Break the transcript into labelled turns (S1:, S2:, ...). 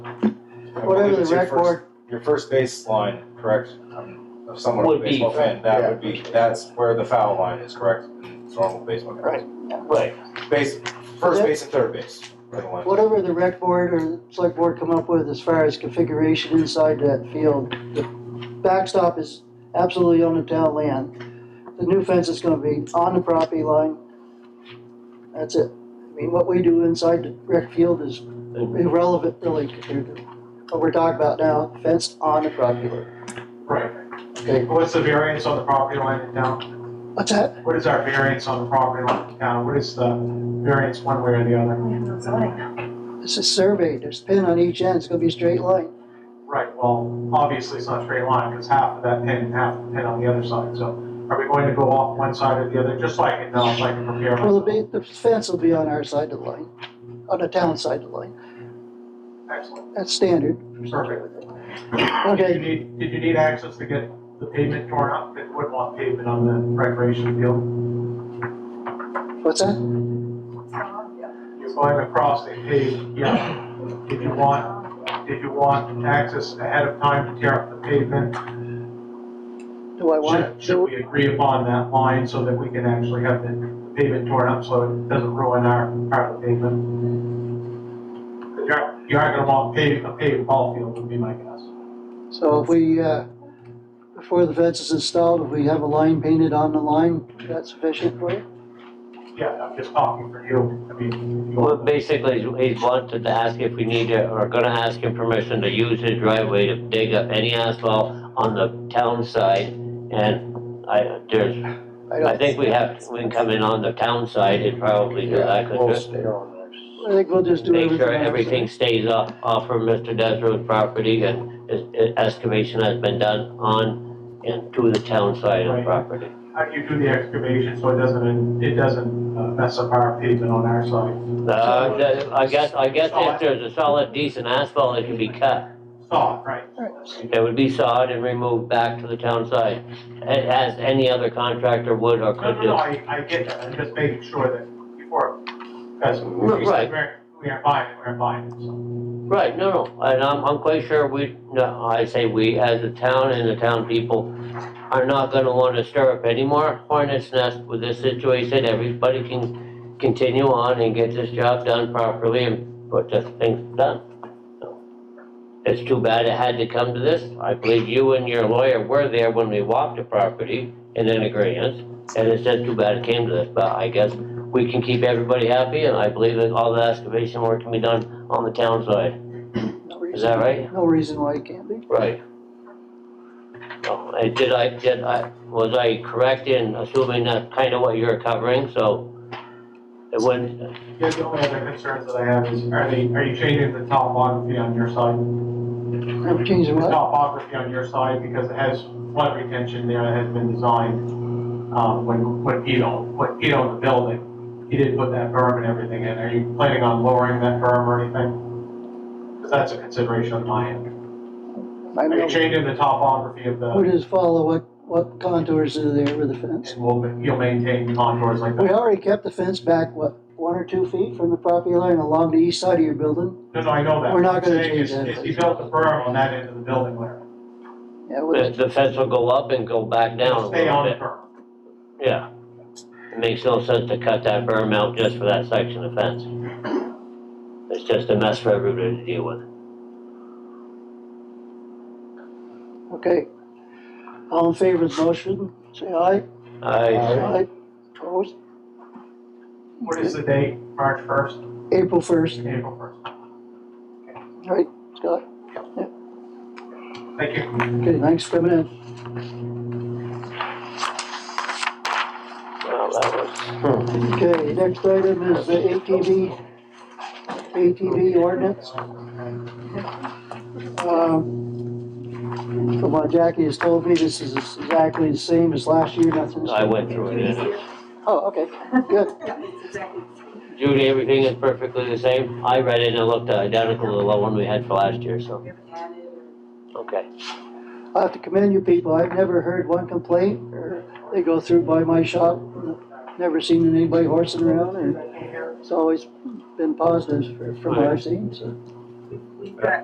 S1: I
S2: Whatever
S1: believe
S2: the
S1: it's your
S2: rec
S1: first-
S2: board-
S1: Your first baseline, correct? I'm- If someone was a
S3: Would be,
S1: baseball fan,
S2: yeah.
S1: that would be, that's where the foul line is, correct? In Normal baseball.
S2: Right.
S3: Right.
S1: Base, first
S2: Yeah.
S1: base and third base. are the lines.
S2: Whatever the rec board or the select board come up with as far as configuration inside that field, the backstop is absolutely on the town land. The new fence is gonna be on the property line. That's it. I mean, what we do inside the rec field is irrelevant really compared to what we're talking about now, fence on the property line.
S4: Right.
S2: Okay,
S4: What's the variance on the property line in town?
S2: what's that?
S4: What is our variance on the property line in town? What is the variance one way or the other?
S5: We have no zoning now.
S2: It's a survey. There's pin on each end. It's gonna be a straight line.
S4: Right, well, obviously it's not a straight line because half of that pin and half of the pin on the other side. So are we going to go off one side or the other, just so I can know, so I can prepare
S2: Well,
S4: myself?
S2: the, ba- the fence will be on our side of the line, on the town side of the line.
S4: Excellent,
S2: That's standard.
S4: perfect. Did you
S2: Okay,
S4: need, did you need access to get the pavement torn up? It wouldn't want pavement on the recreation field.
S2: what's that?
S5: It's not on yet.
S4: You're going across a paved, yeah. Did you want, did you want access ahead of time to tear up the pavement
S2: Do I want,
S4: Should, should
S2: do,
S4: we agree upon that line so that we can actually have the pavement torn up so it doesn't ruin our, our pavement? 'Cause you aren't, you aren't gonna want paved, a paved ball field would be my guess.
S2: so if we, uh, before the fence is installed, if we have a line painted on the line, that's sufficient for you?
S4: Yeah, I'm just talking for you, I mean, if you
S3: Well,
S4: want.
S3: basically, he wanted to ask if we need to, or gonna ask him permission to use his driveway to dig up any asphalt on the town side. And I, there's, I think we have, we can come in on the town side and probably do that, 'cause just
S2: I think we'll just do
S3: make
S2: everything.
S3: sure
S2: on the
S3: everything stays off, off of Mr. Desro's property and is- is- excavation has been done on and to the town side of the
S4: Right.
S3: property.
S4: How do you do the excavation so it doesn't, it doesn't uh, mess up our pavement on our side?
S3: Uh, the- I guess, I guess if there's a solid decent asphalt, it can be cut.
S4: Saw, right?
S3: It would be sawed and removed back to the town side, a- as any other contractor would or
S4: No,
S3: could
S4: no,
S3: do.
S4: no, I, I get that, I'm just making sure that before, because we
S3: Right.
S4: said we're, we are buying, it, we're buying, it, so.
S3: Right, no, no, and I'm, I'm quite sure we, no, I say we, as a town and the town people, are not gonna wanna stir up any more hornet's nest with this situation, everybody can continue on and get this job done properly and put this thing done. It's too bad it had to come to this, I believe you and your lawyer were there when we walked the property in an agreement, and it's just too bad it came to this, but I guess we can keep everybody happy, and I believe that all the excavation work can be done on the town side.
S2: No reason-
S3: Is that right?
S2: No reason why it can't be.
S3: Right. So, I- Did I, did I, was I correct in assuming that's kind of what you're covering, so it wouldn't,
S4: Yeah, the only other concerns that I have is, are they, are you changing the topography on your side?
S2: Never change the
S4: The
S2: what?
S4: topography on your side, because it has flood retention there, it has been designed, um, when, when Pete owned, when Pete owned the building, he did put that berm and everything in, are you planning on lowering that berm or anything? Because that's a consideration on my end.
S2: I
S4: Are you
S2: know.
S4: changing the topography of
S2: We
S4: the,
S2: just follow what, what contours are there with the fence.
S4: and will, you'll maintain contours like
S2: We
S4: that?
S2: already kept the fence back, what, one or two feet from the property line along the east side of your building?
S4: No, no, I know that.
S2: We're not gonna
S4: What I'm saying
S2: change
S4: is-
S2: that.
S4: is He built the berm on that end of the building there.
S2: Yeah, we'll
S3: the the fence will go up and go back down a
S4: Stay
S3: little
S4: on the
S3: bit?
S4: berm.
S3: Yeah. It makes no sense to cut that berm out just for that section of fence. It's just a mess for everybody to deal with.
S2: Okay. All in favor of the motion, say aye.
S3: I,
S2: Aye. Opposed?
S4: What is the date, March first,
S2: April first,
S4: April first?
S2: right, Scott?
S4: Thank you.
S2: Okay, thanks for coming in.
S3: well, that was.
S2: Okay, next item is the ATV, ATV ordinance. Um, From what Jackie has told me, this is exactly the same as last year, nothing's.
S3: I went through it.
S5: It's
S3: and-
S5: easier.
S2: Oh, okay, good.
S5: Yeah, it's exactly the same.
S3: Judy, everything is perfectly the same. I read it and it looked identical to the one we had for last year, so,
S5: We haven't added or-
S3: okay.
S2: I have to commend you people, I've never heard one complaint, or they go through by my shop, never seen anybody horsing around, and it's always been positive for- from what I've seen, so.
S5: We've got